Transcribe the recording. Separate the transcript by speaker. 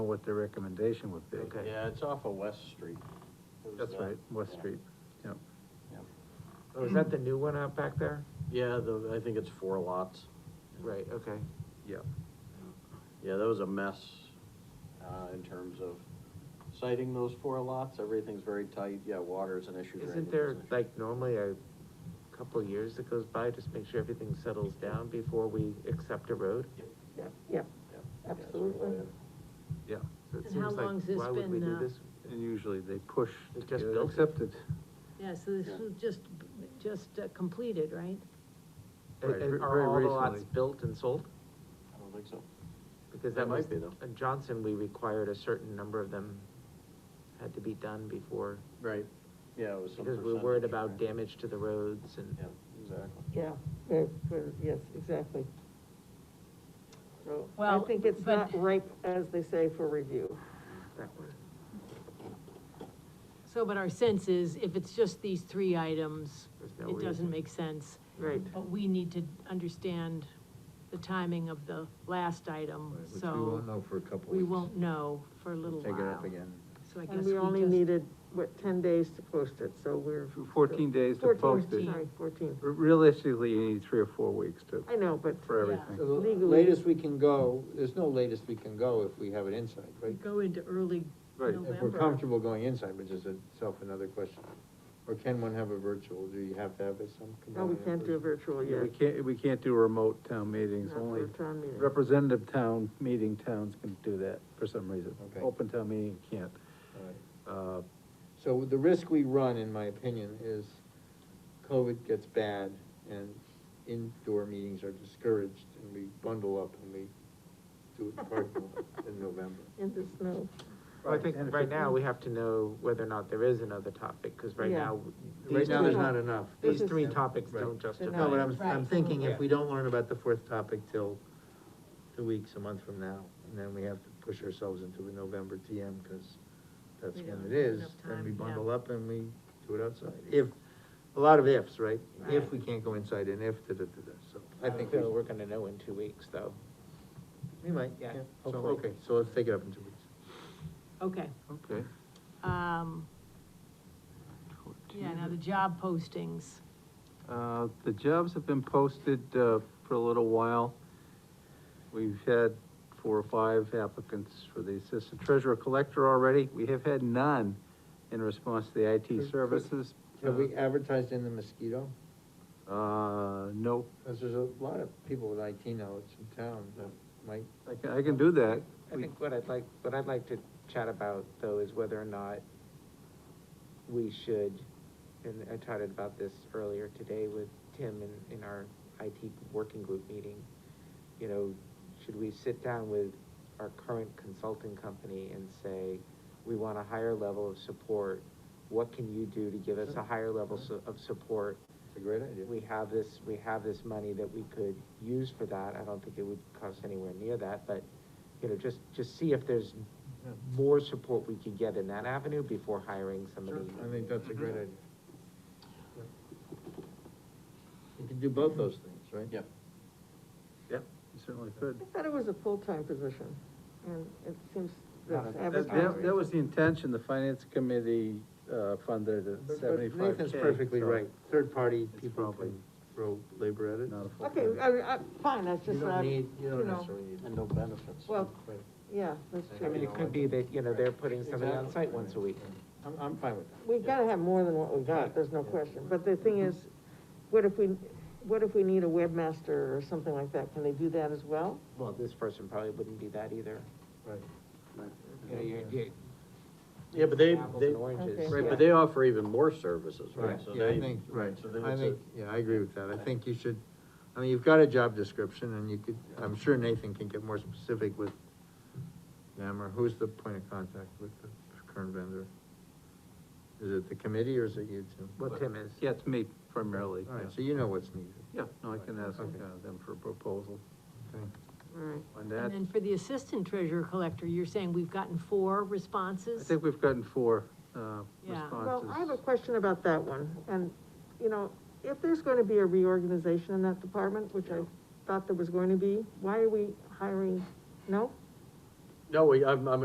Speaker 1: know what their recommendation would be.
Speaker 2: Okay.
Speaker 3: Yeah, it's off of West Street. It was,
Speaker 1: That's
Speaker 3: uh,
Speaker 1: right, West
Speaker 3: yeah,
Speaker 1: Street, yep.
Speaker 3: yeah.
Speaker 2: Oh, is that the new one out back there?
Speaker 3: Yeah, the, I think it's four lots.
Speaker 2: Right, okay.
Speaker 1: Yep.
Speaker 3: Yeah, that was a mess, uh, in terms of citing those four lots, everything's very tight, yeah, water is an issue. drainage
Speaker 2: Isn't
Speaker 3: is
Speaker 2: there,
Speaker 3: an issue.
Speaker 2: like, normally a couple of years that goes by, just make sure everything settles down before we accept a road?
Speaker 4: Yeah, yeah,
Speaker 3: Yeah, yeah, it's really
Speaker 4: absolutely.
Speaker 3: bad.
Speaker 1: Yeah,
Speaker 2: So it
Speaker 5: And how
Speaker 2: seems like,
Speaker 5: long's this
Speaker 2: why would we
Speaker 5: been,
Speaker 2: do
Speaker 5: uh,
Speaker 2: this?
Speaker 1: and usually they push
Speaker 2: They
Speaker 1: to
Speaker 2: just
Speaker 1: get it
Speaker 2: built it.
Speaker 1: accepted.
Speaker 5: Yeah, so this was just, just uh, completed, right?
Speaker 2: And-
Speaker 1: Right,
Speaker 2: and
Speaker 1: ver- very
Speaker 2: Are all the lots
Speaker 1: recently.
Speaker 2: built and sold?
Speaker 3: I don't think so.
Speaker 2: Because
Speaker 3: They
Speaker 2: that
Speaker 3: might
Speaker 2: was,
Speaker 3: be, though.
Speaker 2: in Johnson, we required a certain number of them had to be done before,
Speaker 3: Right, yeah, it was some
Speaker 2: because we're worried
Speaker 3: percentage,
Speaker 2: about
Speaker 3: right?
Speaker 2: damage to the roads and.
Speaker 3: Yeah, exactly.
Speaker 4: Yeah, uh, for- yes, exactly. So, I
Speaker 5: Well,
Speaker 4: think it's
Speaker 5: but-
Speaker 4: not ripe, as they say, for review.
Speaker 5: So, but our sense is, if it's just these three items,
Speaker 2: There's no
Speaker 5: it doesn't
Speaker 2: reason.
Speaker 5: make sense.
Speaker 4: Right.
Speaker 5: But we need to understand the timing of the last item,
Speaker 6: Right, Which we won't
Speaker 5: so
Speaker 6: know for a couple
Speaker 5: we
Speaker 6: weeks.
Speaker 5: won't know for a little while.
Speaker 6: Take it up again.
Speaker 5: So I guess
Speaker 4: And
Speaker 5: we
Speaker 4: we only
Speaker 5: just-
Speaker 4: needed, what, ten days to post it, so we're.
Speaker 1: Fourteen days to
Speaker 4: 14,
Speaker 1: post it.
Speaker 4: Sorry, fourteen.
Speaker 1: R- Realistically, you need three or four weeks to,
Speaker 4: I know, but.
Speaker 1: for
Speaker 5: Yeah.
Speaker 1: everything.
Speaker 6: So the
Speaker 4: Legally-
Speaker 6: latest we can go, there's no latest we can go if we have an inside,
Speaker 5: We
Speaker 6: right?
Speaker 5: Go into early
Speaker 1: Right.
Speaker 5: November.
Speaker 6: If we're comfortable going inside, which is itself another question. Or can one have a virtual, do you have to have it some?
Speaker 4: No, we can't do a virtual
Speaker 1: Yeah,
Speaker 4: yet.
Speaker 1: We can't, we can't do remote town meetings,
Speaker 4: Not for
Speaker 1: only
Speaker 4: a town meeting.
Speaker 1: representative town, meeting towns can do that for some reason.
Speaker 6: Okay.
Speaker 1: Open town meeting can't.
Speaker 6: Alright.
Speaker 1: Uh,
Speaker 6: So the risk we run, in my opinion, is COVID gets bad and indoor meetings are discouraged and we bundle up and we do it in parking lot in November.
Speaker 4: In the snow.
Speaker 2: Well, I think
Speaker 1: and if
Speaker 2: right
Speaker 1: it-
Speaker 2: now, we have to know whether or not there is another topic, because right
Speaker 4: Yeah.
Speaker 2: now.
Speaker 6: Right
Speaker 2: these
Speaker 6: now,
Speaker 2: three-
Speaker 6: there's not enough.
Speaker 2: These
Speaker 4: This is-
Speaker 2: three topics
Speaker 6: Right.
Speaker 2: don't justify.
Speaker 6: No, but
Speaker 2: it.
Speaker 6: I'm, I'm
Speaker 5: Right.
Speaker 6: thinking if we don't learn about the fourth topic till two weeks, a month from now, and then we have to push ourselves into a November TM, because that's
Speaker 5: We
Speaker 6: when
Speaker 5: don't
Speaker 6: it
Speaker 5: have
Speaker 6: is,
Speaker 5: enough
Speaker 6: then we
Speaker 5: time, yeah.
Speaker 6: bundle up and we do it outside. If, a lot of ifs, right? If
Speaker 5: Right.
Speaker 6: we can't go inside and if, da-da-da-da, so I think we,
Speaker 2: Uh, So we're gonna know in two weeks, though.
Speaker 6: we might, yeah.
Speaker 2: Yeah,
Speaker 6: So,
Speaker 2: hopefully.
Speaker 6: okay, so let's take it up in two weeks.
Speaker 5: Okay,
Speaker 1: Okay.
Speaker 5: um, yeah, now the job postings.
Speaker 1: Uh, the jobs have been posted, uh, for a little while. We've had four or five applicants for the assistant treasurer collector already. We have had none in response to the
Speaker 6: Good,
Speaker 1: IT
Speaker 6: good.
Speaker 1: services.
Speaker 6: Have we advertised in the mosquito?
Speaker 1: Uh, no,
Speaker 6: Because there's a lot of people with IT knowledge in town that might
Speaker 1: I can, I can do that.
Speaker 2: I
Speaker 1: We-
Speaker 2: think what I'd like, what I'd like to chat about, though, is whether or not we should, and I chatted about this earlier today with Tim in, in our IT working group meeting. You know, should we sit down with our current consulting company and say, we want a higher level of support? What can you do to give us a higher level so- of support?
Speaker 6: It's a great idea.
Speaker 2: we have this, we have this money that we could use for that, I don't think it would cost anywhere near that, but, you know, just, just see if there's
Speaker 6: Yeah.
Speaker 2: more support we could get in that avenue before hiring somebody.
Speaker 6: I think that's a great idea. Mm-hmm. You can do both those things, right?
Speaker 3: Yep.
Speaker 1: Yep, you certainly could.
Speaker 4: I thought it was a full-time position, and it seems
Speaker 2: Not
Speaker 4: that's
Speaker 1: That,
Speaker 2: at this
Speaker 4: advertised.
Speaker 1: that- that was the intention, the finance committee, uh, funded
Speaker 6: But-
Speaker 1: at
Speaker 6: but
Speaker 1: seventy-five
Speaker 6: Nathan's perfectly right, third-party people
Speaker 1: probably
Speaker 6: can throw labor at it.
Speaker 1: Not a full.
Speaker 4: Okay, I, I, fine, that's
Speaker 6: You
Speaker 4: just, uh,
Speaker 6: don't
Speaker 4: you
Speaker 6: need, you don't
Speaker 4: know,
Speaker 6: necessarily need.
Speaker 3: And no benefits.
Speaker 4: well,
Speaker 6: Right.
Speaker 4: yeah, that's
Speaker 6: I
Speaker 2: I mean,
Speaker 4: true.
Speaker 2: it could be that, you know, they're putting somebody on
Speaker 6: Exactly.
Speaker 2: site once a week.
Speaker 6: I'm, I'm fine with that.
Speaker 4: We've gotta have more than what we got, there's no question, but the thing is, what if we, what if we need a webmaster or something like that, can they do that as well?
Speaker 2: Well, this person probably wouldn't be that either.
Speaker 6: Right.
Speaker 2: You know, you're, you
Speaker 3: Yeah, but they,
Speaker 2: apples
Speaker 3: they,
Speaker 2: and oranges.
Speaker 3: right, but they offer even more services, right?
Speaker 6: Right,
Speaker 3: So
Speaker 6: yeah, I
Speaker 3: they-
Speaker 6: think, right,
Speaker 3: So then
Speaker 6: I
Speaker 3: it's a-
Speaker 6: think, yeah, I agree with that, I think you should, I mean, you've got a job description, and you could, I'm sure Nathan can get more specific with them, or who's the point of contact with the current vendor? Is it the committee, or is it you two?
Speaker 2: Well, Tim is.
Speaker 1: Yeah, it's me primarily,
Speaker 6: All right, so
Speaker 1: yeah.
Speaker 6: you know what's needed.
Speaker 1: Yeah, no, I can ask uh,
Speaker 6: Okay.
Speaker 1: them for a proposal
Speaker 6: Okay.
Speaker 4: Alright,
Speaker 1: on
Speaker 5: And
Speaker 1: that.
Speaker 5: then for the assistant treasurer collector, you're saying we've gotten four responses?
Speaker 1: I think we've gotten four, uh,
Speaker 5: Yeah.
Speaker 4: well,
Speaker 1: responses.
Speaker 4: I have a question about that one, and, you know, if there's gonna be a reorganization in that department, which I thought there was going to be, why are we hiring, no?
Speaker 3: No, we, I'm, I'm